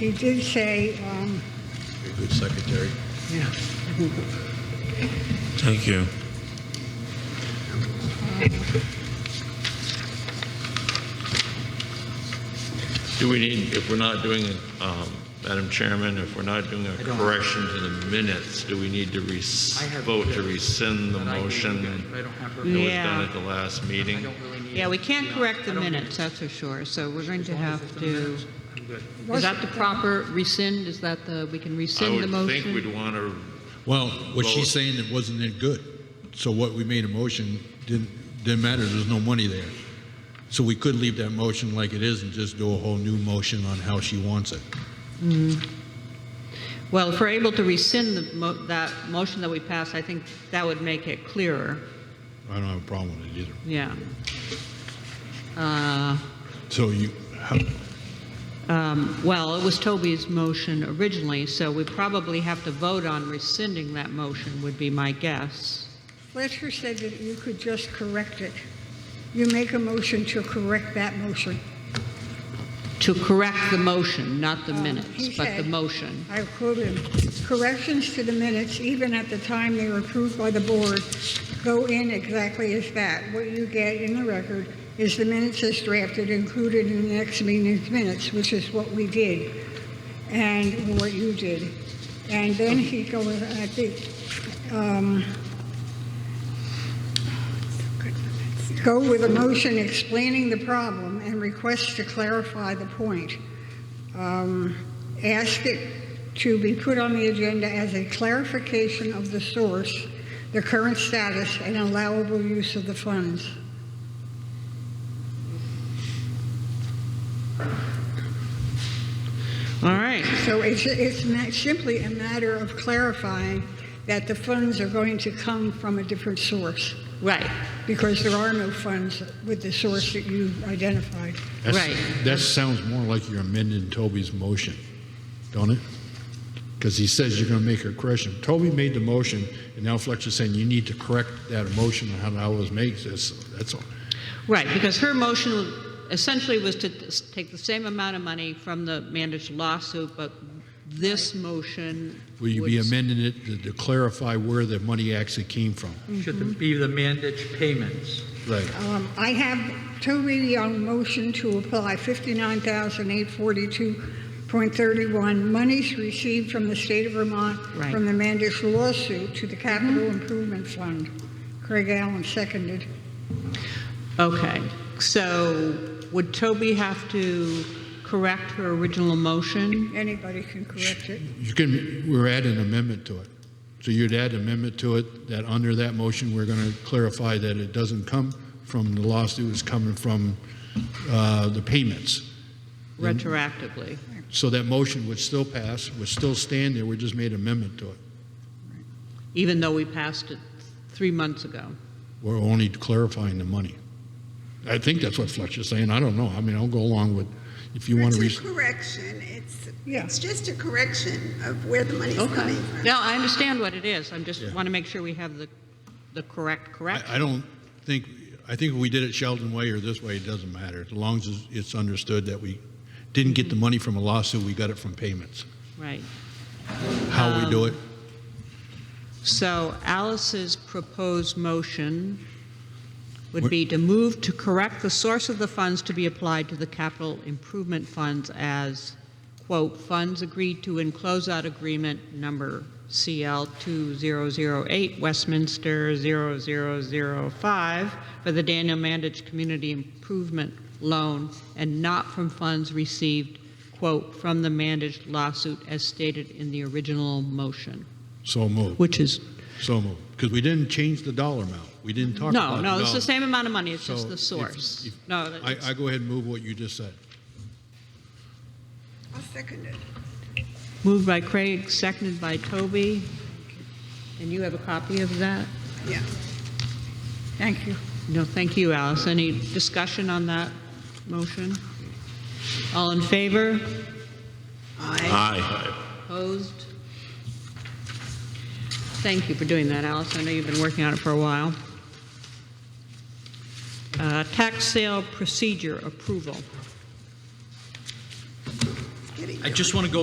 you did say, um, You're a good secretary. yeah, Thank you. Do we need, if we're not doing, um, Madam Chairman, if we're not doing a don't- correction to the minutes, do we need to res- I have- vote to rescind the But I gave you motion guys- but I don't have her- that was Yeah. done at the last meeting? I don't really need. Mm. Yeah, we can't Yeah, correct the I don't- minutes, that's for sure, so we're going As to long as have it's in the to, minutes, I'm good. is that the proper rescind, is that the, we can rescind the I would think motion? we'd want to, Well, what she's Well- saying, it wasn't that good. So what we made a motion didn't, didn't matter, there's no money there. So we could leave that motion like it is and just do a whole new motion on how she wants it. Well, if we're able to rescind the, mo- that motion that we passed, I think that would make it clearer, I don't have a problem with it either. yeah. Uh, So you, how, Well, it was Toby's motion originally, so we probably have to vote on rescinding that motion, would be my guess. Fletcher said that you could just correct it. You make a motion to correct that motion. To correct the motion, not the Um, minutes, he but the said- motion. I quote him, "Corrections to the minutes, even at the time they were approved by the board, go in exactly as that. What you get in the record is the minutes as drafted included in the next meeting's minutes, which is what we did and what you did." And then he goes, I think, um, go with a motion explaining the problem and request to clarify the point. Um, Ask it to be put on the agenda as a clarification of the source, the current status, and allowable use of the funds. All right, So it's, it's ma- simply a matter of clarifying that the funds are going to come from a different source, right, because there are no funds with the source that you identified. that's- Right. that sounds more like you're amending Toby's motion, don't it? Because he says you're gonna make a correction. Toby made the motion, and now Fletcher's saying you need to correct that motion on how that was made, that's, that's all. right, because her motion essentially was to s- take the same amount of money from the managed lawsuit, but this motion Will you be would- amending it to- to clarify where the money actually came from? Should be the mandated payments. Right. Um, I have Toby on motion to apply 59,842.31 monies received from the state of Vermont Right. from the Mandish lawsuit to the Capital Improvement Fund. Craig Allen seconded. Okay, so would Toby have to correct her original motion? Anybody can correct it. You can, we're adding amendment to it. So you'd add amendment to it, that under that motion, we're going to clarify that it doesn't come from the lawsuit, it's coming from uh, the payments. Mm-hmm. retroactively. So that motion would still pass, would still stand there, we just made amendment to it. even though we passed it three months ago. We're only clarifying the money. I think that's what Fletcher's saying, I don't know, I mean, I'll go along with, if you want to. It's a correction, it's, Yeah. it's just a correction of where the money's coming from. No, I understand what it is. I'm just, Yeah. want to make sure we have the, the correct I, I correction. don't think, I think if we did it Sheldon way or this way, it doesn't matter, as long as it's- it's understood that we didn't get the money from a lawsuit, we got it from payments. Right. How we Oh. do it, So Alice's proposed motion would be to move to correct the source of the funds to be applied to the capital improvement funds as, quote, "funds agreed to in closeout agreement number CL 2008 Westminster 0005 for the Daniel Mandich Community Improvement Loan and not from funds received, quote, "from the Mandich lawsuit as stated in the original motion," so move, which is so move. Because we didn't change the dollar amount, we didn't talk about No, the no, it's the dollar. same amount of money, it's So just the if- source. if- No, I, it's- I go ahead and move what you just said. I'll second it. moved by Craig, seconded by Toby. And you have a copy of that? Yeah. Thank you. No, thank you, Alice. Any discussion on that motion? All in favor? Aye. Aye. Opposed? Thank you for doing that, Alice. I know you've been working on it for a while. Uh, Tax sale procedure approval. Getting I just want to go